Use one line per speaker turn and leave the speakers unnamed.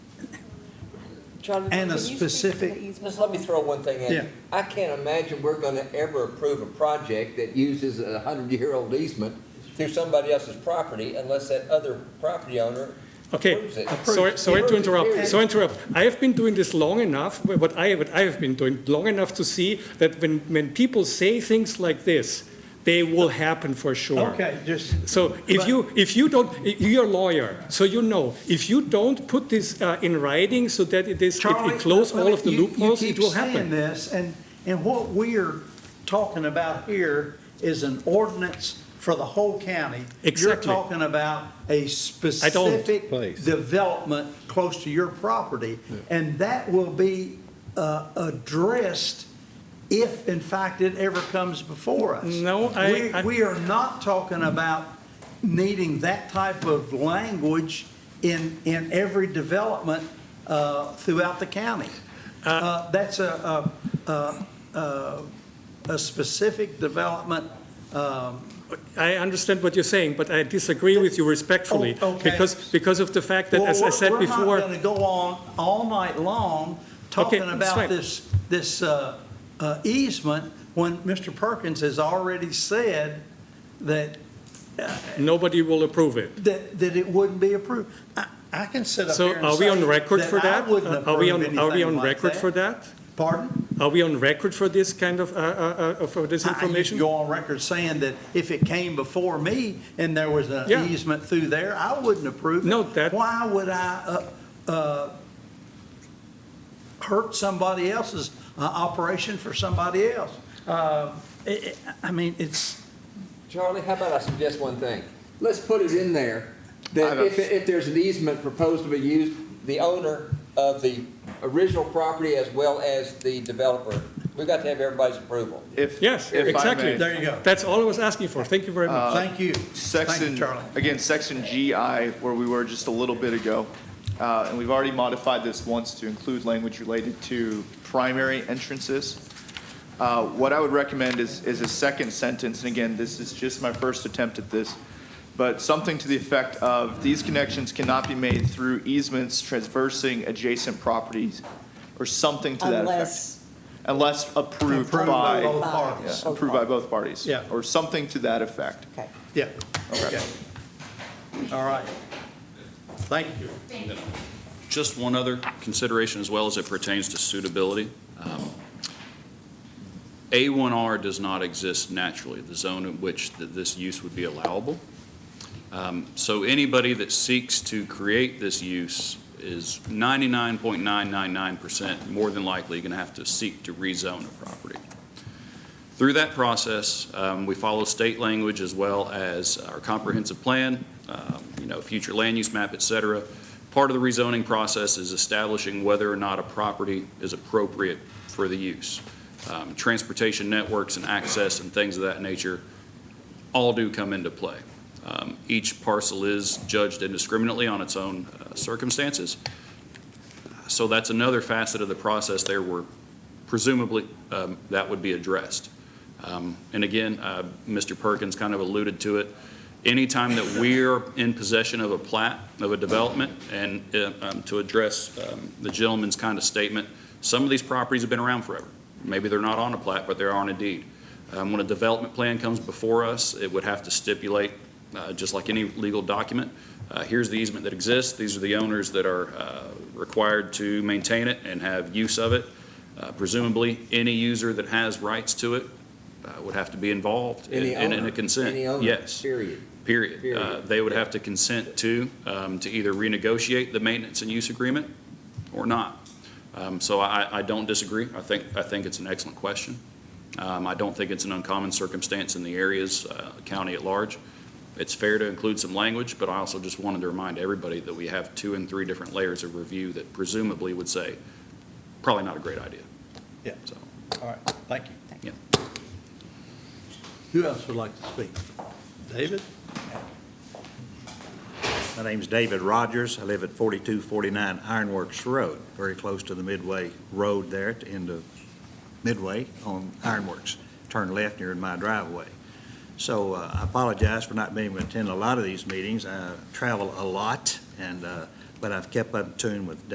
Jonathan,
And a
can you speak to the
specific-
easement
Just let me
law?
throw one thing
Yeah.
in. I can't imagine we're gonna ever approve a project that uses a hundred-year-old easement through somebody else's property unless that other property owner
Okay,
approves it.
sorry, sorry to
Approves it,
interrupt,
period.
sorry to interrupt. I have been doing this long enough, what I, what I have been doing, long enough to see that when, when people say things like this, they will happen for sure.
Okay, just,
So if you, if you don't, you're a lawyer, so you know, if you don't put this uh, in writing so that it is, it-
Charlie.
it close all of the
you- you
loopholes,
keep
it will
saying
happen.
this, and, and what we're talking about here is an ordinance for the whole county.
Exactly.
You're talking about a specific
Place.
development close to your property, and that will be uh, addressed if, in fact, it ever comes before us.
No, I-
We-
I-
We are not talking about needing that type of language in, in every development uh, throughout the county. Uh, That's a, a, a, a specific development.
I understand what you're saying, but I disagree with you respectfully.
Oh, okay.
Because, because of the fact that,
Well,
as I
we're-
said
We're not
before,
going to go on all night long talking
that's
about
fine.
this, this uh, uh, easement when Mr. Perkins has already said that,
nobody will approve it.
that, that it wouldn't be approved. I, I can sit up
So
here and
are we on
say
record for
I
that?
wouldn't
Are we
approve
on, are we
anything
on
like
record for that?
Pardon?
Are we on record for this kind of, uh, uh, uh, for this
I- I used to
information?
go on record saying that if it came before me and there was an
Yeah.
easement through there, I wouldn't approve it.
No, that-
Why would I, uh, uh, hurt somebody else's uh, operation for somebody else? Uh, it- it- I mean, it's,
Charlie, how about I suggest one thing? Let's put it in there that if, if there's an easement proposed to be used, the owner of the original property as well as the developer, we've got to have everybody's approval.
If,
Yes,
if I
exactly.
may. Uh,
There you go.
That's all I was asking for. Thank you very much.
thank you. Thank you,
Section,
Charlie.
again, section GI, where we were just a little bit ago, uh, and we've already modified this once to include language related to primary entrances. Uh, What I would recommend is, is a second sentence, and again, this is just my first attempt at this, but something to the effect of, these connections cannot be made through easements traversing adjacent properties, or something to that effect.
Unless,
Unless approved
Approved
by,
both
yeah,
parties.
approved by both parties.
Yeah.
Or something to that effect.
okay.
Yeah. Okay. All right. Thank you.
Just one other consideration as well as it pertains to suitability. Um, A1R does not exist naturally, the zone in which th- this use would be allowable. Um, So anybody that seeks to create this use is 99.999% more than likely going to have to seek to rezone a property. Through that process, um, we follow state language as well as our comprehensive plan, um, you know, future land use map, et cetera. Part of the rezoning process is establishing whether or not a property is appropriate for the use. Um, Transportation networks and access and things of that nature all do come into play. Um, Each parcel is judged indiscriminately on its own uh, circumstances. So that's another facet of the process there where presumably um, that would be addressed. Um, And again, uh, Mr. Perkins kind of alluded to it. Anytime that we're in possession of a plat, of a development, and uh, um, to address um, the gentleman's kind of statement, some of these properties have been around forever. Maybe they're not on a plat, but they are on a deed. Um, When a development plan comes before us, it would have to stipulate, uh, just like any legal document, uh, here's the easement that exists, these are the owners that are uh, required to maintain it and have use of it. Uh, Presumably, any user that has rights to it uh, would have to be involved in
Any
in- in
owner,
a consent.
any owner,
Yes,
Period.
period.
period.
Uh, They would have to consent to, um, to either renegotiate the maintenance and use agreement or not. Um, So I, I don't disagree. I think, I think it's an excellent question. Um, I don't think it's an uncommon circumstance in the areas, uh, county at large. It's fair to include some language, but I also just wanted to remind everybody that we have two and three different layers of review that presumably would say, probably not a great idea.
Yeah.
So,
All right, thank you.
yeah.
Who else would like to speak? David?
My name's David Rogers. I live at 4249 Ironworks Road, very close to the Midway Road there at the end of Midway on Ironworks. Turn left near my driveway. So uh, I apologize for not being able to attend a lot of these meetings. I travel a lot, and, uh, but I've kept up in tune with